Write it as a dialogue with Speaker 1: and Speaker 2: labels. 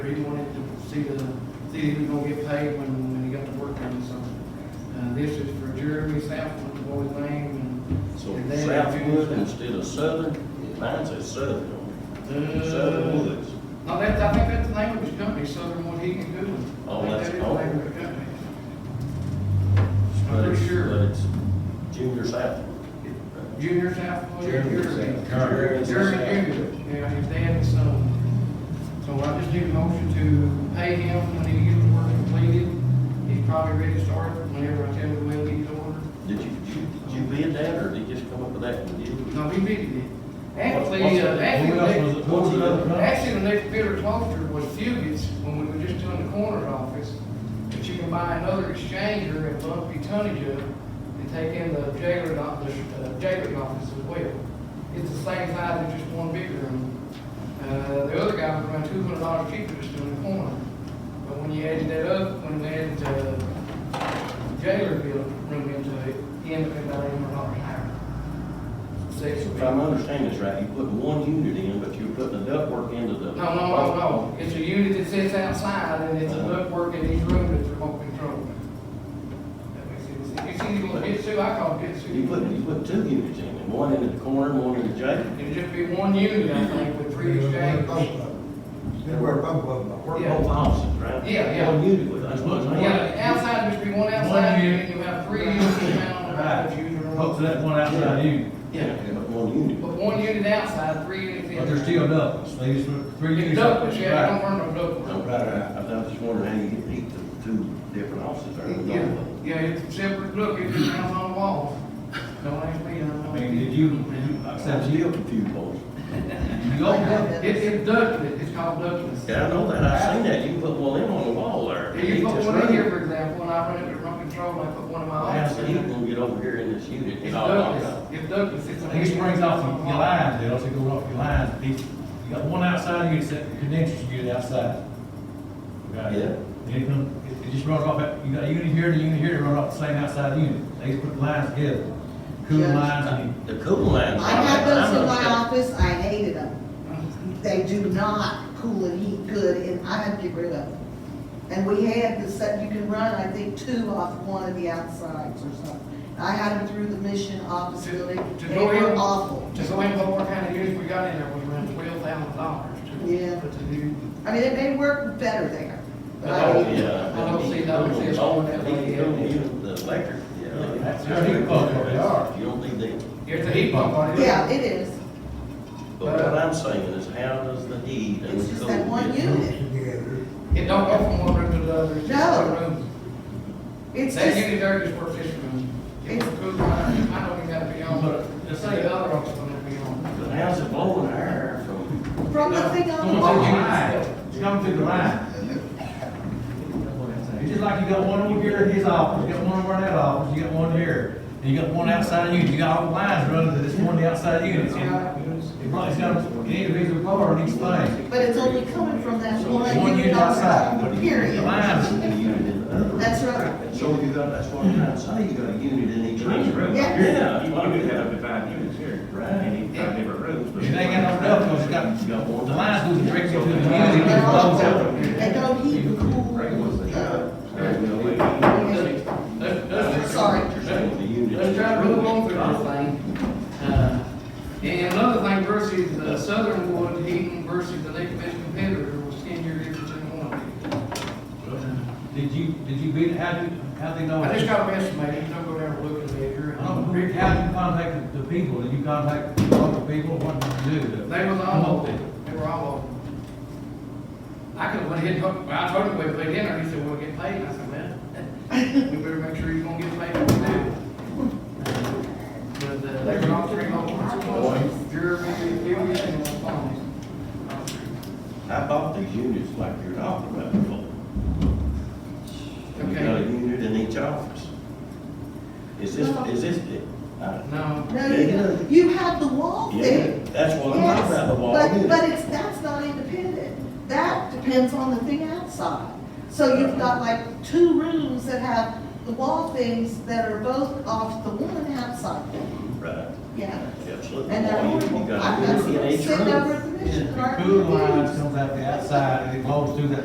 Speaker 1: He wanted to see the, see if he was gonna get paid when, when he got to work on something. Uh, this is for Jeremy Southwood, the boy's name,
Speaker 2: So
Speaker 1: and. then-
Speaker 2: Southwood instead of Southern, mine says Southern,
Speaker 1: Uh,
Speaker 2: Southern Woods.
Speaker 1: No, that's, I think that's the name of his company, Southern Wood Heating and Cooling. I
Speaker 2: Oh,
Speaker 1: think
Speaker 2: that's-
Speaker 1: that is the
Speaker 2: oh.
Speaker 1: name of the company.
Speaker 2: But
Speaker 1: I'm
Speaker 2: it's-
Speaker 1: pretty
Speaker 2: But
Speaker 1: sure.
Speaker 2: it's Junior Southwood.
Speaker 1: Junior Southwood.
Speaker 2: Jeremy Southwood. Jeremy
Speaker 1: Jeremy Junior, yeah, his dad and son. So I just need a motion to pay him when he gets the work completed. He's probably ready to start whenever I tell him when he's ordered.
Speaker 2: Did you, did you, did you bid that, or did you just come up with that one, did you?
Speaker 1: No, we bidded it. Actually, uh, actually, the next- actually, the next bidder closer was Fugits, when we were just doing the corner office. But you can buy another exchanger and bump your tonnage up and take in the jailer's office, uh, jailer's office as well. It's the same size as just one bigger room. Uh, the other guy was around two hundred dollars cheaper just doing the corner. But when you added that up, when we added, uh, jailer bill room into it, he ended up about eight hundred dollars higher. Six.
Speaker 2: If I'm understanding this right, you put one unit in, but you're putting the ductwork into the.
Speaker 1: No, no, no, no, it's a unit that sits outside and it's a ductwork in each room that's remote controlled. That makes sense. You see, you want Bitsu, I call it Bitsu.
Speaker 2: You put, you put two units in, and one in the corner, and one in the jail.
Speaker 1: It'd just be one unit, I think, with three exchanges.
Speaker 3: They were both of them.
Speaker 2: Work
Speaker 1: Yeah.
Speaker 2: both offices, right?
Speaker 1: Yeah, yeah.
Speaker 2: One unit with, that's what I'm saying.
Speaker 1: Yeah, outside, just be one outside unit, you have three units down, right, usually
Speaker 4: Hope
Speaker 1: remote.
Speaker 4: that one outside you,
Speaker 2: Yeah, but one unit.
Speaker 1: But one unit outside, three units in.
Speaker 4: but they're still ductless, they use three
Speaker 1: It's
Speaker 4: years.
Speaker 1: ductless, yeah, don't burn no ductwork.
Speaker 2: No, right, right. I was just wondering how you get heat to two different offices, or
Speaker 1: Yeah, yeah, it's separate, look, it just comes on the wall. Don't ask me, I don't know.
Speaker 4: I mean, did you, did you
Speaker 2: I'm
Speaker 4: accept you?
Speaker 2: still confused, boys.
Speaker 4: You go, yeah,
Speaker 1: It, it's ductless, it's called ductless.
Speaker 2: Yeah, I know that, I seen that, you put one in on the wall there.
Speaker 1: Yeah, you
Speaker 2: Heat
Speaker 1: put
Speaker 2: this
Speaker 1: one in
Speaker 2: room.
Speaker 1: here, for example, and I went up to remote control, and I put one in my
Speaker 2: How's
Speaker 1: office.
Speaker 2: the heat gonna get over here in this unit?
Speaker 1: It's ductless, it's ductless, it's.
Speaker 4: it springs off of your lines, they also go off your lines, If you got one outside, you get set, condensers, you get outside. Right.
Speaker 2: Yeah.
Speaker 4: Then it come- it, it just runs off, at- you got a unit here, and a unit here, it runs off the same outside unit, they just put lines together, cooling
Speaker 5: Yes.
Speaker 4: lines, and
Speaker 2: uh, The cooling lines.
Speaker 5: I had those in my
Speaker 2: understand.
Speaker 5: office, I hated them. They do not cool and heat good, and I had to get rid of them. And we had the set, you can run, I think, two off one of the outsides or something. I had them through the mission office
Speaker 1: To-
Speaker 5: building,
Speaker 1: to
Speaker 5: they
Speaker 1: go
Speaker 5: were
Speaker 1: in?
Speaker 5: awful.
Speaker 1: Just the way Baltimore County years we got in there was around twelve thousand dollars to.
Speaker 5: Yeah.
Speaker 1: But to do,
Speaker 5: I mean, they, they work better there. but I
Speaker 2: Oh,
Speaker 5: hated them.
Speaker 2: yeah.
Speaker 1: I don't see- I don't see us
Speaker 2: Oh,
Speaker 1: going that way.
Speaker 2: Heat cooling unit, the electric, yeah.
Speaker 4: That's your heat pump, what they are.
Speaker 2: You don't need that.
Speaker 1: here's the heat pump on it.
Speaker 5: Yeah, it is.
Speaker 2: But what I'm saying is, how does the heat and
Speaker 5: It's
Speaker 2: the
Speaker 5: just
Speaker 2: cool?
Speaker 5: that one
Speaker 2: get-
Speaker 5: unit.
Speaker 1: It don't go from one room to the other, it's just
Speaker 5: No.
Speaker 1: one room.
Speaker 5: It's
Speaker 1: That
Speaker 5: just,
Speaker 1: unit there just works this room. It's
Speaker 5: It's-
Speaker 1: cool, I I don't even have to be on,
Speaker 4: But,
Speaker 1: but
Speaker 4: just
Speaker 1: just
Speaker 4: say-
Speaker 1: the other office don't have to be on.
Speaker 2: But how's it blowing air from?
Speaker 5: from the thing on the
Speaker 4: Going through the
Speaker 5: wall.
Speaker 4: line, it's coming through the line. It's just like you got one over here at his office, you got one over at that office, you got one here, and you got one outside you, you got all the lines running to this one, the outside units. and It probably got an individual car in each thing.
Speaker 5: But it's only coming from that
Speaker 4: One
Speaker 5: one
Speaker 4: unit
Speaker 5: unit
Speaker 4: outside.
Speaker 5: outside,
Speaker 2: The
Speaker 5: period.
Speaker 2: lines in the unit in the other.
Speaker 5: That's right.
Speaker 2: So you got, that's what I'm trying to say, you got a unit in each room.
Speaker 5: Yeah.
Speaker 2: Yeah.
Speaker 6: You want to have up to five units here, and you have different rooms. but-
Speaker 4: It ain't got no duct, cause you got,
Speaker 2: You got one.
Speaker 4: the lines goes directly to the unit,
Speaker 5: They
Speaker 4: it just flows out.
Speaker 5: don't heat and cool.
Speaker 6: Right, what's the
Speaker 5: uh,
Speaker 6: job? There's no way.
Speaker 1: Let's- let's- let's-
Speaker 5: Sorry.
Speaker 2: You're saying the unit.
Speaker 1: Let's try to move on through this thing. Uh, And another thing versus uh, Southern Wood Heating versus the next best competitor was ten year difference in one.
Speaker 4: Did you, did you beat, how did, how they know?
Speaker 1: I just got a estimate, don't go down and look at it here.
Speaker 4: I don't know, how you contact the people, did you contact the local people, what did you do?
Speaker 1: They was all over, they were all over. I could have went ahead and, hooked- well, I told him we played dinner, he said, we'll get paid, and I said, man, we better make sure he's gonna get paid what we do. But, uh, they were all three over, Jeremy, Billy, and Bonnie. All three.
Speaker 2: I bought these units like you're talking about before. You got a
Speaker 1: Okay,
Speaker 2: unit in each office. Is this, is this, uh,
Speaker 1: no,
Speaker 5: No, you don't. you have the wall
Speaker 2: yeah,
Speaker 5: there.
Speaker 2: that's what I'm talking about, the wall
Speaker 5: Yes, But,
Speaker 2: unit.
Speaker 5: but it's, that's not independent. That depends on the thing outside. So you've got like two rooms that have the wall things that are both off the one outside.
Speaker 2: Right,
Speaker 5: Yeah.
Speaker 2: absolutely.
Speaker 5: And they're
Speaker 2: Wall unit,
Speaker 5: horrible.
Speaker 2: You
Speaker 5: I've
Speaker 2: got a
Speaker 5: got
Speaker 2: unit in
Speaker 5: some
Speaker 2: each
Speaker 5: sitting over
Speaker 2: room.
Speaker 5: at the Commission.
Speaker 4: Cool lines comes out the outside and it blows through that